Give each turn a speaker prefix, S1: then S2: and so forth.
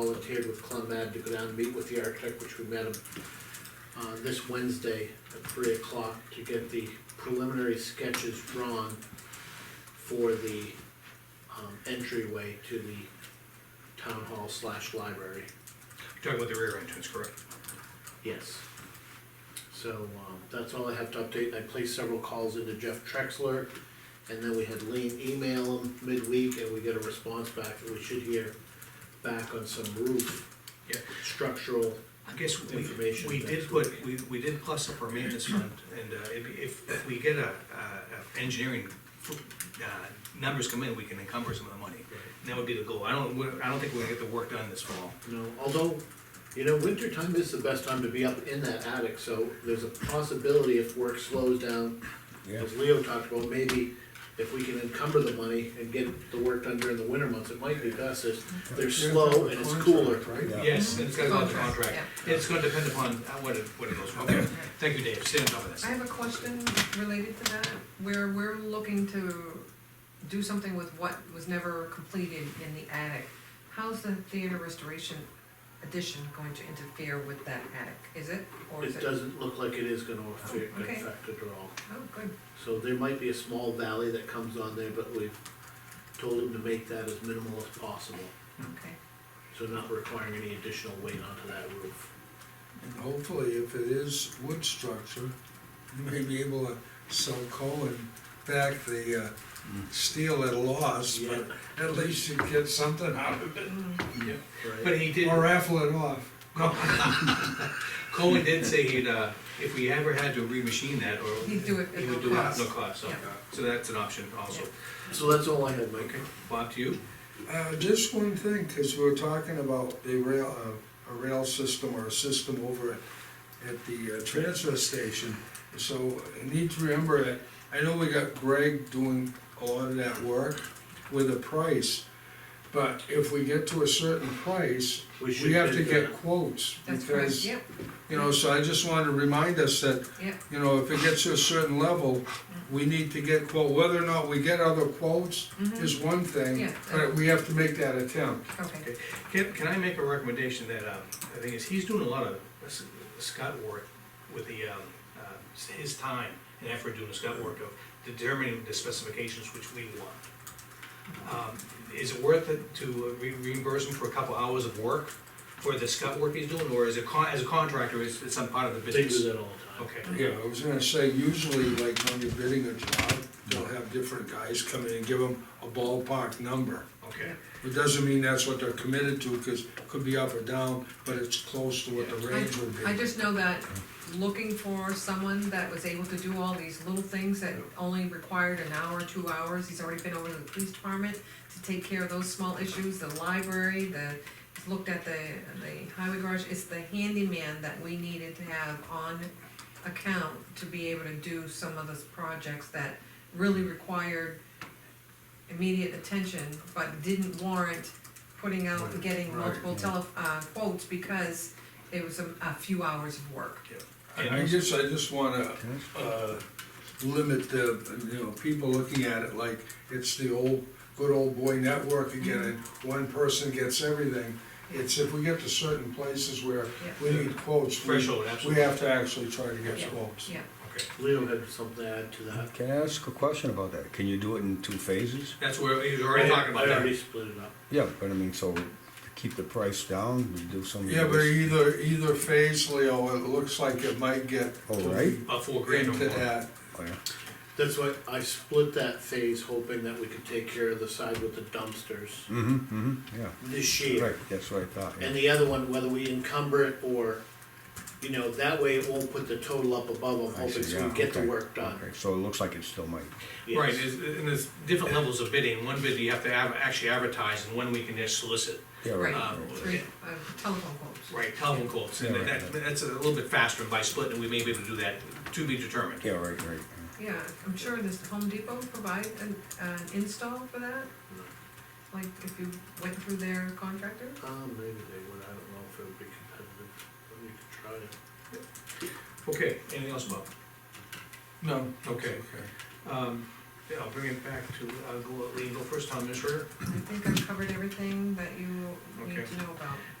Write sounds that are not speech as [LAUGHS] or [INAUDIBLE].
S1: volunteered with CleMed to go down and meet with the architect, which we met him uh, this Wednesday at three o'clock to get the preliminary sketches drawn for the, um, entryway to the town hall slash library,
S2: Talking about the rear entrance, correct?
S1: yes. So, um, that's all I have to update, I placed several calls into Jeff Trexler, and then we had Lean email him midweek, and we get a response back, that we should hear back on some roof
S2: Yeah.
S1: structural,
S2: I guess we,
S1: Information
S2: we
S1: next
S2: did put, we, we did plus up our maintenance fund, and uh, if, if, if we get a, a a engineering, uh, numbers come in, we can encumber some of the money. And that would be the goal, I don't, we- I don't think we're gonna get the work done this fall.
S1: you know, although, you know, winter time is the best time to be up in that attic, so there's a possibility if work slows down,
S3: Yeah.
S1: as Leo talked about, maybe if we can encumber the money and get the work done during the winter months, it might be best, it's, they're slow and it's cooler.
S3: Yeah.
S2: Yes, and it's gotta go out to contract,
S4: Contract,
S2: it's gonna depend upon uh, what it, what it goes for. Okay. Thank you, Dave, stay on top of this.
S4: I have a question related to that, where we're looking to do something with what was never completed in the attic. How's the theater restoration addition going to interfere with that attic? Is it, or is
S1: It
S4: it? Oh,
S1: doesn't look like it is gonna affect,
S4: Okay.
S1: affect it at all,
S4: Oh, good,
S1: so there might be a small valley that comes on there, but we've told them to make that as minimal as possible,
S4: okay.
S1: so not requiring any additional weight onto that roof.
S3: And hopefully, if it is wood structure, you may be able to sell Cohen back the uh, steel at a loss, but at least you get something out of it,
S2: But he did.
S3: or raffle it off.
S2: No. [LAUGHS] Cohen did say he'd, uh, if we ever had to remachine that, or.
S4: He'd do it at
S2: He
S4: no
S2: would do it at
S4: cost.
S2: no cost, so,
S4: Yeah.
S2: so that's an option also.
S1: So that's all I had, Mike.
S2: Bob, to you?
S3: Uh, just one thing, because we're talking about a rail, uh, a rail system or a system over at, at the uh, transfer station. So I need to remember that, I know we got Greg doing a lot of that work with a price. But if we get to a certain price,
S1: We should
S3: we have to
S1: bid
S3: get
S1: that.
S3: quotes.
S4: That's correct,
S3: Because,
S4: yep,
S3: you know, so I just wanted to remind us that,
S4: yep,
S3: you know, if it gets to a certain level, we need to get quote, whether or not we get other quotes
S4: mhm,
S3: is one thing,
S4: Yeah.
S3: but we have to make that attempt.
S4: okay,
S2: Can, can I make a recommendation that, um, I think is, he's doing a lot of uh, s- scut work with the, um, uh, his time and effort doing the scut work of determining the specifications which we want. Um, Is it worth it to re- reimburse him for a couple hours of work for the scut work he's doing, or is it con, as a contractor, is it some part of the
S1: They do
S2: business?
S1: that all the time.
S2: Okay,
S4: Mm-hmm.
S3: Yeah, I was gonna say, usually like when you're bidding a job, they'll have different guys come in and give them a ballpark number.
S2: okay.
S3: It doesn't mean that's what they're committed to, cause it could be up or down, but it's close to what the range would
S4: I
S3: be.
S4: just know that looking for someone that was able to do all these little things that only required an hour, two hours, he's already been over to the police department to take care of those small issues, the library, the, he's looked at the, the highway garage, it's the handyman that we needed to have on account to be able to do some of those projects that really required immediate attention, but didn't warrant putting out, and getting
S3: Right,
S4: multiple tele, uh, quotes, because it was a, a few hours of work.
S3: And I guess I just wanna, uh, limit the, you know, people looking at it like it's the old, good old boy network again, and
S4: Mm-hmm.
S3: one person gets everything. It's if we get to certain places where we need quotes, we,
S2: Threshold,
S3: we
S2: absolutely.
S3: have to actually try to get
S4: Yeah.
S3: quotes.
S4: Yeah,
S2: Okay.
S1: Leo had something to add to that.
S5: Can I ask a question about that? Can you do it in two phases?
S2: That's where, he was already
S1: I-
S2: talking about
S1: I
S2: that.
S1: already split it up.
S5: Yeah, but I mean, so to keep the price down, we do some. of
S3: Yeah, but
S5: those-
S3: either, either phase, Leo, it looks like it might get.
S5: Oh, right.
S2: About four grand or
S3: Into
S2: more.
S3: that,
S5: Oh, yeah.
S1: That's why I split that phase hoping that we could take care of the side with the dumpsters
S5: Mm-hmm, mm-hmm, yeah.
S1: this year.
S5: Right, that's what I thought, yeah.
S1: And the other one, whether we encumber it or, you know, that way it won't put the total up above, I'm
S5: I
S1: hoping
S5: see,
S1: so we
S5: yeah,
S1: get the
S5: okay,
S1: work done.
S5: Okay, so it looks like it still might.
S1: Yes.
S2: Right, there's- and there's different levels of bidding, one bid you have to av- actually advertise, and one we can just solicit,
S5: Yeah,
S4: right,
S2: Um,
S4: three, uh, telephone quotes.
S2: right, telephone quotes, and
S5: Yeah, right,
S2: that, that's a little bit faster, and by splitting, we may be able to do that, to be determined.
S5: Yeah, right, right.
S4: Yeah, I'm sure this Home Depot provide an, an install for that? Like if you went through their contractor?
S1: Um, maybe they would, I don't know if it would be competitive, but we could try it.
S2: Okay, anything else, Bob?
S3: no,
S2: Okay.
S3: okay.
S2: Um, Yeah, I'll bring it back to, uh, go, Lee, go first, town administrator.
S4: I think I've covered everything that you need
S2: Okay.
S4: to know about.